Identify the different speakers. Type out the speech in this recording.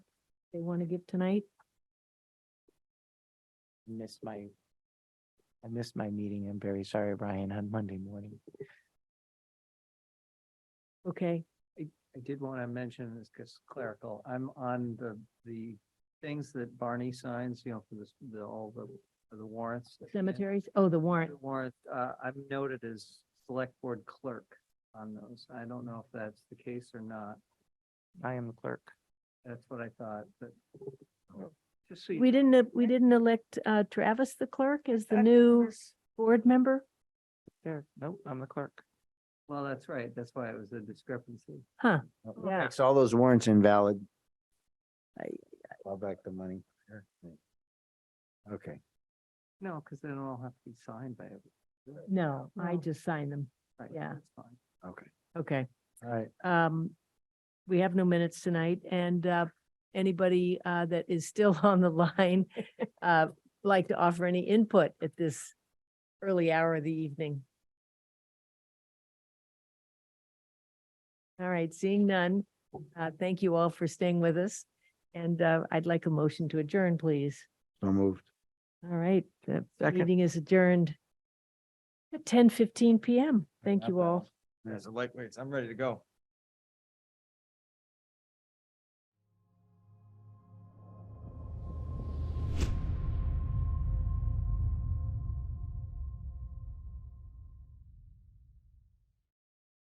Speaker 1: they want to give tonight?
Speaker 2: missed my, I missed my meeting. I'm very sorry, Brian, on Monday morning.
Speaker 1: Okay,
Speaker 3: I did want to mention this because clerical, I'm on the, the things that Barney signs, you know, for this, the, all the, for the warrants.
Speaker 1: cemeteries, oh, the warrant,
Speaker 3: The Warrant, uh, I've noted as select board clerk on those. I don't know if that's the case or not.
Speaker 2: I am the clerk.
Speaker 3: That's what I thought, but just so you.
Speaker 1: we
Speaker 3: know,
Speaker 1: didn't, we didn't elect uh, Travis the clerk as the
Speaker 3: that's-
Speaker 1: new board member?
Speaker 2: There, nope, I'm the clerk.
Speaker 3: Well, that's right. That's why it was a discrepancy.
Speaker 1: Huh,
Speaker 3: Oh,
Speaker 1: Yeah.
Speaker 4: Makes all those warrants invalid. Call back the money. Okay,
Speaker 3: No, because they don't all have to be signed by everyone.
Speaker 1: no, I
Speaker 3: No.
Speaker 1: just signed them,
Speaker 3: Right,
Speaker 1: yeah.
Speaker 3: that's fine.
Speaker 4: okay.
Speaker 1: okay.
Speaker 4: All right.
Speaker 1: um, we have no minutes tonight and, uh, anybody, uh, that is still on the line, uh, like to offer any input at this early hour of the evening? All right, seeing none, uh, thank you all for staying with us. And, uh, I'd like a motion to adjourn, please.
Speaker 4: So moved.
Speaker 1: All right, the
Speaker 2: Second.
Speaker 1: meeting is adjourned at ten fifteen PM. Thank you all.
Speaker 4: There's a lightweights. I'm ready to go.